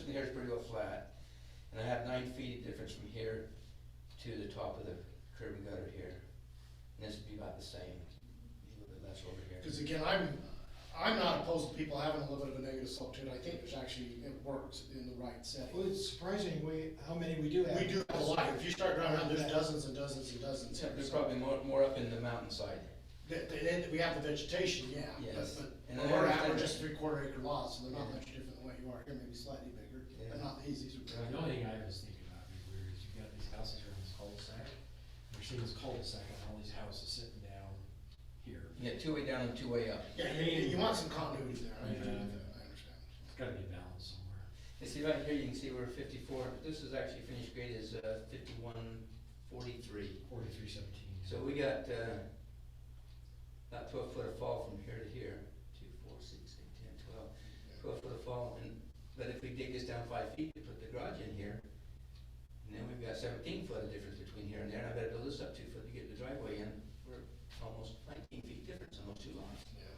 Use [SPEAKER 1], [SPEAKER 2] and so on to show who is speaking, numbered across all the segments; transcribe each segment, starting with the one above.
[SPEAKER 1] the air is pretty well flat, and I have nine feet of difference from here to the top of the curb and gutter here. And this would be about the same, a little bit less over here.
[SPEAKER 2] Because again, I'm, I'm not opposed to people having a little bit of a negative slope to it, I think there's actually, it works in the right
[SPEAKER 3] Well,
[SPEAKER 2] setting.
[SPEAKER 3] it's surprising we, how many we do have.
[SPEAKER 2] We do have a lot, if you start driving around, there's dozens and dozens and dozens here.
[SPEAKER 1] There's
[SPEAKER 2] so-
[SPEAKER 1] probably more, more up in the mountainside.
[SPEAKER 2] Th- th- Then we have the vegetation, yeah,
[SPEAKER 1] Yes.
[SPEAKER 2] but,
[SPEAKER 1] And
[SPEAKER 2] but
[SPEAKER 1] I
[SPEAKER 2] we're at,
[SPEAKER 1] understand
[SPEAKER 2] we're
[SPEAKER 1] that.
[SPEAKER 2] just three quarter acre lots, so they're not
[SPEAKER 1] Yeah.
[SPEAKER 2] much different than what you are here, maybe slightly bigger,
[SPEAKER 1] Yeah.
[SPEAKER 2] but not the easiest.
[SPEAKER 1] Right.
[SPEAKER 4] The only thing I was thinking about is where is you've got these houses here in this cul-de-sac, and you're seeing this cul-de-sac and all these houses sitting down here.
[SPEAKER 1] Yeah, two way down and two way up.
[SPEAKER 2] Yeah, you, you- you want some continuity there, I agree
[SPEAKER 4] Yeah.
[SPEAKER 2] with that, I understand.
[SPEAKER 4] It's gotta be balanced somewhere.
[SPEAKER 1] You see right here, you can see we're fifty-four, this is actually finished grade is uh, fifty-one forty-three.
[SPEAKER 4] Forty-three seventeen.
[SPEAKER 1] So we got, uh, about twelve foot of fall from here to here, two, four, six, eight, ten, twelve, twelve foot of fall, and, but if we dig this down five feet, we put the garage in here, and then we've got seventeen foot of difference between here and there, and I better build this up two foot to get the driveway in, we're almost nineteen feet difference on those two lots.
[SPEAKER 2] Yeah.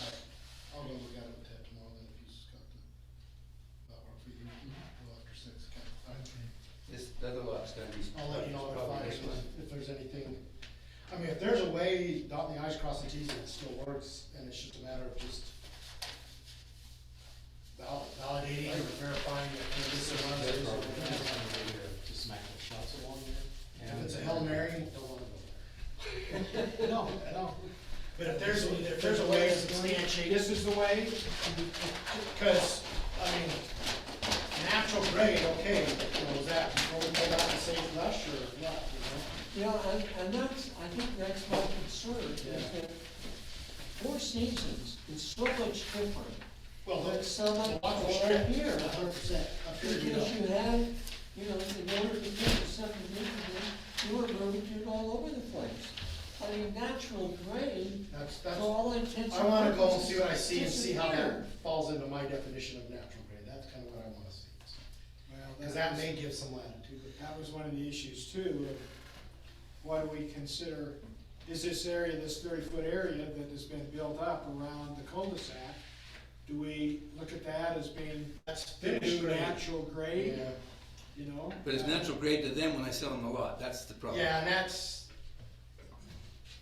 [SPEAKER 2] All right, I'll go look at it with Ted tomorrow, then if he's got the, that work for you, well, after six, okay, Mm-hmm. all right.
[SPEAKER 1] This, the other lot's gonna be.
[SPEAKER 2] I'll let you know if
[SPEAKER 1] probably
[SPEAKER 2] I,
[SPEAKER 1] this one.
[SPEAKER 2] if there's anything, I mean, if there's a way, dotting the i's, crossing the t's, and it still works, and it's just a matter of just val- validating or verifying that this is one of
[SPEAKER 4] That's probably,
[SPEAKER 2] those.
[SPEAKER 4] that's one way to, to smack the shots along there.
[SPEAKER 2] If it's a Hail Mary, don't wanna go there.
[SPEAKER 3] No, no.
[SPEAKER 2] But if there's, a- if there's a way to substantiate.
[SPEAKER 3] This is the way,
[SPEAKER 2] Because, I mean, natural grade, okay, you know, is that, will we pull out and say lush or what, you know?
[SPEAKER 5] Yeah, and, and that's, I think that's my concern, is
[SPEAKER 2] Yeah.
[SPEAKER 5] that Four Seasons is so much different.
[SPEAKER 2] Well,
[SPEAKER 5] But
[SPEAKER 2] that's
[SPEAKER 5] some
[SPEAKER 2] a
[SPEAKER 5] of
[SPEAKER 2] lot more
[SPEAKER 5] them
[SPEAKER 2] strict,
[SPEAKER 5] are here.
[SPEAKER 2] a hundred percent, up here you
[SPEAKER 5] Because you
[SPEAKER 2] know.
[SPEAKER 5] had, you know, in order to get the subdivision, you were moving it all over the place. I mean, natural grade,
[SPEAKER 2] That's,
[SPEAKER 5] for
[SPEAKER 2] that's,
[SPEAKER 5] all intents
[SPEAKER 2] I
[SPEAKER 5] and
[SPEAKER 2] wanna go and
[SPEAKER 5] purposes,
[SPEAKER 2] see what I see and see how that
[SPEAKER 5] disappeared.
[SPEAKER 2] falls into my definition of natural grade, that's kinda what I wanna see.
[SPEAKER 3] well,
[SPEAKER 2] Cause that may give some latitude, but
[SPEAKER 3] that was one of the issues too, of what do we consider, is this area, this thirty-foot area that has been built up around the cul-de-sac, do we look at that as being
[SPEAKER 2] that's finished
[SPEAKER 3] new
[SPEAKER 2] grade.
[SPEAKER 3] natural grade,
[SPEAKER 2] Yeah,
[SPEAKER 3] you know?
[SPEAKER 1] But it's
[SPEAKER 3] Uh,
[SPEAKER 1] natural grade to them when I sell them the lot, that's the problem.
[SPEAKER 2] Yeah, and that's,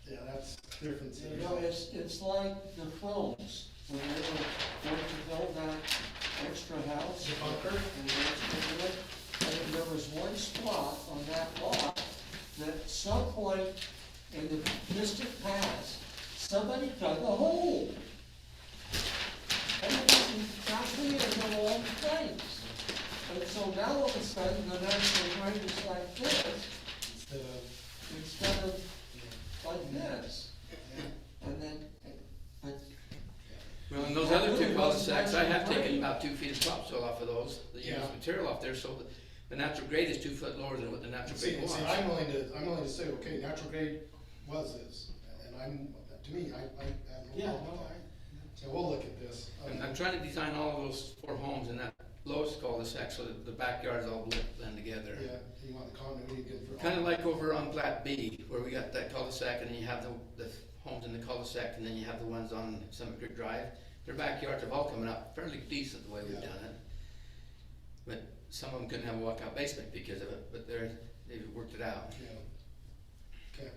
[SPEAKER 2] yeah, that's
[SPEAKER 3] Uh,
[SPEAKER 2] different.
[SPEAKER 5] You know, it's, it's like the phones, when they were going to build that extra house.
[SPEAKER 2] The bunker?
[SPEAKER 5] And they were to do it, and there was one spot on that lot that some point in the distant past, somebody dug a hole. And it was exactly in the wrong place. And so now all of a sudden, the natural grade is like this
[SPEAKER 2] Instead of,
[SPEAKER 5] instead of
[SPEAKER 2] you know,
[SPEAKER 5] like this. And then, but
[SPEAKER 1] Well, and those other two
[SPEAKER 5] Well,
[SPEAKER 1] cul-de-sacs, I have
[SPEAKER 5] natural
[SPEAKER 1] taken
[SPEAKER 5] grade.
[SPEAKER 1] about two feet of topsoil off of those, the
[SPEAKER 2] Yeah.
[SPEAKER 1] used material off there, so the, the natural grade is two foot lower than what the natural
[SPEAKER 2] See,
[SPEAKER 1] grade was.
[SPEAKER 2] see, I'm willing to, I'm willing to say, okay, natural grade was this, and I'm, to me, I, I have no
[SPEAKER 3] Yeah,
[SPEAKER 2] problem
[SPEAKER 3] no,
[SPEAKER 2] with that.
[SPEAKER 3] I,
[SPEAKER 2] So we'll look at this.
[SPEAKER 1] I'm, I'm trying to design all of those four homes in that lowest cul-de-sac so that the backyards all blend together.
[SPEAKER 2] Yeah, you want the continuity again for.
[SPEAKER 1] Kinda like over on Plat B, where we got that cul-de-sac and then you have the, the homes in the cul-de-sac and then you have the ones on Summit Creek Drive. Their backyards have all coming up fairly decent the way we've
[SPEAKER 2] Yeah.
[SPEAKER 1] done it. But some of them couldn't have a walkout basement because of it, but they're, they've worked it out.
[SPEAKER 2] Yeah. Okay,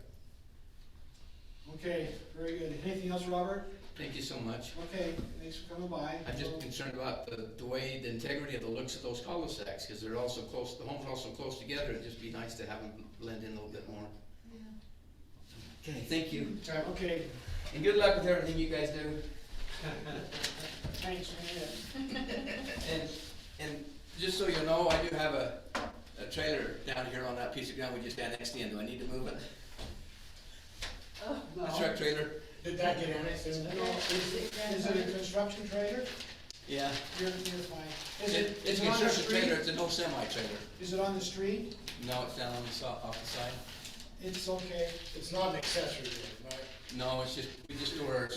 [SPEAKER 3] okay, very good. Anything else, Robert?
[SPEAKER 1] Thank you so much.
[SPEAKER 3] Okay, thanks for coming by.
[SPEAKER 1] I'm just concerned about the, the way, the integrity of the looks of those cul-de-sacs, because they're also close, the homes are also close together, it'd just be nice to have them blend in a little bit more. Okay, thank you,
[SPEAKER 2] Okay, okay.
[SPEAKER 3] Okay,
[SPEAKER 1] and good luck with everything you guys do,
[SPEAKER 3] thanks, man.
[SPEAKER 1] and, and just so you know, I do have a, a trailer down here on that piece of ground we just annexed in, do I need to move it? A truck trailer?
[SPEAKER 2] Did that get annexed in?
[SPEAKER 3] No, is it, is it a construction trailer?
[SPEAKER 1] Yeah.
[SPEAKER 3] You're, you're fine. Is
[SPEAKER 1] It,
[SPEAKER 3] it,
[SPEAKER 1] it's
[SPEAKER 3] is
[SPEAKER 1] a
[SPEAKER 3] it on the
[SPEAKER 1] construction trailer,
[SPEAKER 3] street?
[SPEAKER 1] it's an old semi trailer.
[SPEAKER 3] Is it on the street?
[SPEAKER 1] No, it's down on the so, off the side.
[SPEAKER 3] It's okay.
[SPEAKER 2] It's not an accessory building, right?
[SPEAKER 1] No, it's just, we just store our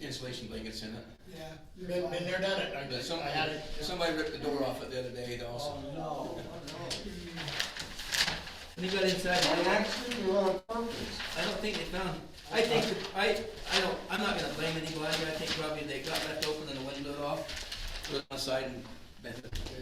[SPEAKER 1] insulation blankets in it.
[SPEAKER 3] Yeah. you're
[SPEAKER 2] Been,
[SPEAKER 3] fine.
[SPEAKER 2] been there, done it, I,
[SPEAKER 1] But
[SPEAKER 2] I
[SPEAKER 1] somebody,
[SPEAKER 2] had it.
[SPEAKER 1] somebody ripped the door off it the other day also.
[SPEAKER 5] Oh, no,
[SPEAKER 1] And he got inside,
[SPEAKER 5] And actually, you're on purpose.
[SPEAKER 1] I don't think they found, I think, I, I don't, I'm not gonna blame anybody, I think probably they got left open and the window off, put it on the side and bent it.